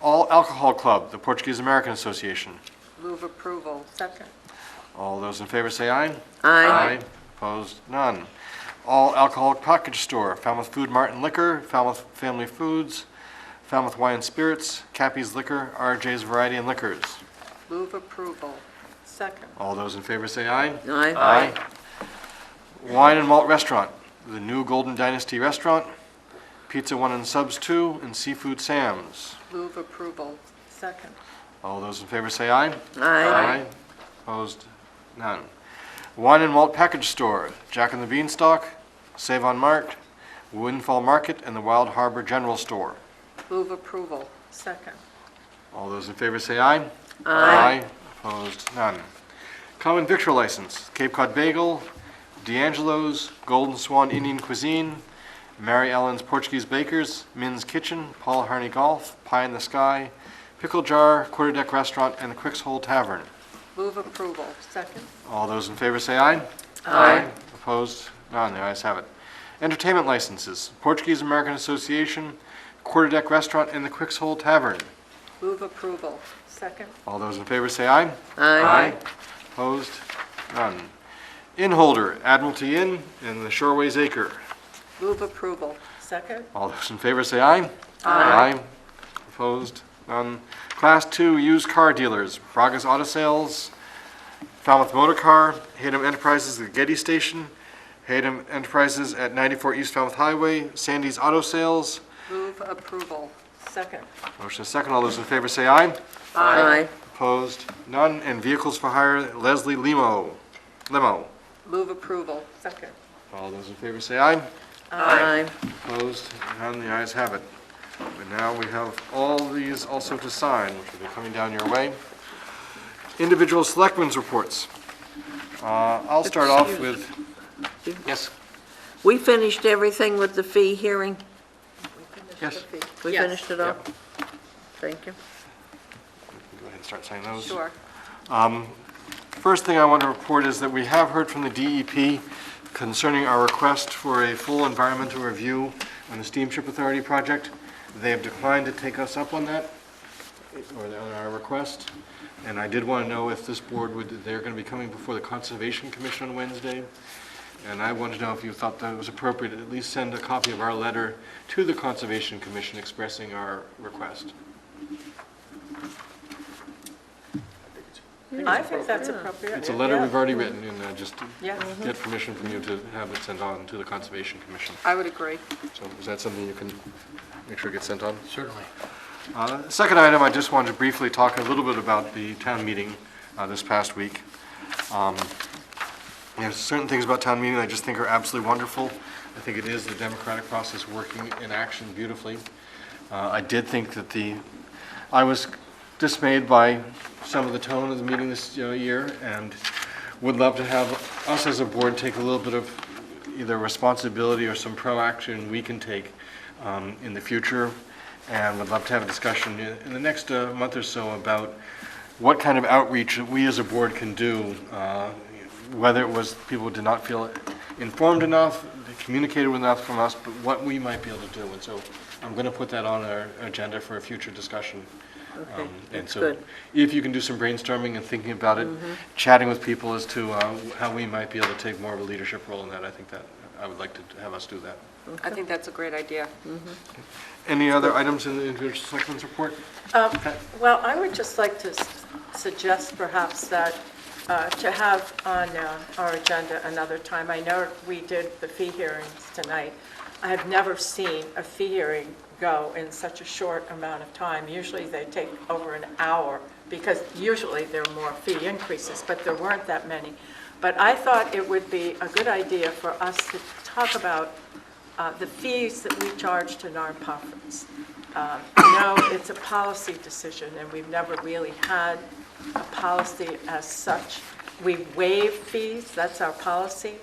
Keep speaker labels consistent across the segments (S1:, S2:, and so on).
S1: All Alcohol Club, the Portuguese American Association.
S2: Move approval. Second.
S1: All those in favor say aye.
S2: Aye.
S1: Opposed, none. All Alcoholic Package Store, Falmouth Food Mart and Liquor, Falmouth Family Foods, Falmouth Wine and Spirits, Cappy's Liquor, RJ's Variety and Liquors.
S2: Move approval. Second.
S1: All those in favor say aye.
S3: Aye.
S1: Aye. Wine and Malt Restaurant, the New Golden Dynasty Restaurant, Pizza One and Subs Two, and Seafood Sam's.
S2: Move approval. Second.
S1: All those in favor say aye.
S3: Aye.
S1: Opposed? None. Wine and Malt Package Store, Jack and the Beanstalk, Save on Mart, Windfall Market, and the Wild Harbor General Store.
S2: Move approval. Second.
S1: All those in favor say aye. Aye. Opposed? None. Common victual license, Cape Cod Bagel, D'Angelo's, Golden Swan Indian Cuisine, Mary Ellen's Portuguese Bakers, Min's Kitchen, Paul Harney Golf, Pie in the Sky, Pickle Jar, Quarter Deck Restaurant, and the Quicks Hole Tavern.
S2: Move approval. Second.
S1: All those in favor say aye. Aye. Opposed? None, the ayes have it. Entertainment licenses, Portuguese American Association, Quarter Deck Restaurant, and the Quicks Hole Tavern.
S2: Move approval. Second.
S1: All those in favor say aye.
S3: Aye.
S1: Opposed? None. Inn holder, Admiralty Inn and the Shoreways Acre.
S2: Move approval. Second.
S1: All those in favor say aye. Aye. Opposed? None. Class two used car dealers, Braga's Auto Sales, Falmouth Motor Car, Hayden Enterprises at Getty Station, Hayden Enterprises at 94 East Falmouth Highway, Sandy's Auto Sales.
S2: Move approval. Second.
S1: Motion is second. All those in favor say aye.
S3: Aye.
S1: Opposed? None. And vehicles for hire, Leslie Limo. Limo.
S2: Move approval. Second.
S1: All those in favor say aye.
S3: Aye.
S1: Opposed, none, the ayes have it. And now we have all these also to sign, which will be coming down your way. Individual selectmen's reports. Uh, I'll start off with, yes,
S3: We finished everything with the fee hearing?
S1: yes.
S3: We
S2: Yes.
S3: finished it all? Thank you.
S1: Go ahead and start signing those.
S2: Sure.
S1: First thing I want to report is that we have heard from the DEP concerning our request for a full environmental review on the Steamship Authority project. They have declined to take us up on that, or on our request. And I did want to know if this board would, they're going to be coming before the Conservation Commission on Wednesday. And I wanted to know if you thought that it was appropriate to at least send a copy of our letter to the Conservation Commission expressing our request.
S2: I think that's appropriate.
S1: It's a letter
S2: Yeah.
S1: we've already written, and I just
S2: Yeah,
S1: get permission from you to have it sent on to the Conservation Commission.
S2: I would agree.
S1: So is that something you can make sure gets sent on? Certainly. Second item, I just wanted to briefly talk a little bit about the town meeting uh, this past week. Um, There's certain things about town meeting I just think are absolutely wonderful. I think it is the democratic process working in action beautifully. Uh, I did think that the, I was dismayed by some of the tone of the meeting this you know, year, and would love to have us as a board take a little bit of either responsibility or some proaction we can take um, in the future, and would love to have a discussion in- in the next uh, month or so about what kind of outreach we as a board can do, uh, whether it was people did not feel informed enough, communicated with enough from us, but what we might be able to do. And so I'm going to put that on our agenda for a future discussion.
S3: Okay,
S1: Um, And
S3: that's
S1: so
S3: good. Mm-hmm.
S1: if you can do some brainstorming and thinking about it, chatting with people as to uh, how we might be able to take more of a leadership role in that, I think that, I would like to have us do that.
S2: I think that's a great idea.
S1: Any other items in the individual selectmen's report?
S2: Um, Well, I would just like to s- suggest perhaps that, uh, to have on uh, our agenda another time. I know we did the fee hearings tonight. I have never seen a fee hearing go in such a short amount of time. Usually they take over an hour, because usually there are more fee increases, but there weren't that many. But I thought it would be a good idea for us to talk about uh, the fees that we charge to nonprofits. Um, No, it's a policy decision, and we've never really had a policy as such. We waive fees, that's our policy,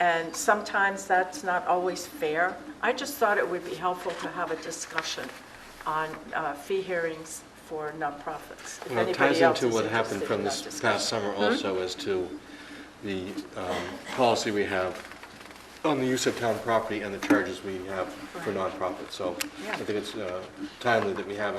S2: and sometimes that's not always fair. I just thought it would be helpful to have a discussion on uh, fee hearings for nonprofits. if
S1: Well, it
S2: anybody
S1: ties
S2: else
S1: into
S2: is
S1: what happened
S2: interested
S1: from
S2: in
S1: this
S2: that discussion. Mm-hmm.
S1: past summer also as to the um, policy we have on the use of town property and the charges we have for nonprofits. So I
S2: Yeah.
S1: think it's uh, timely that we have a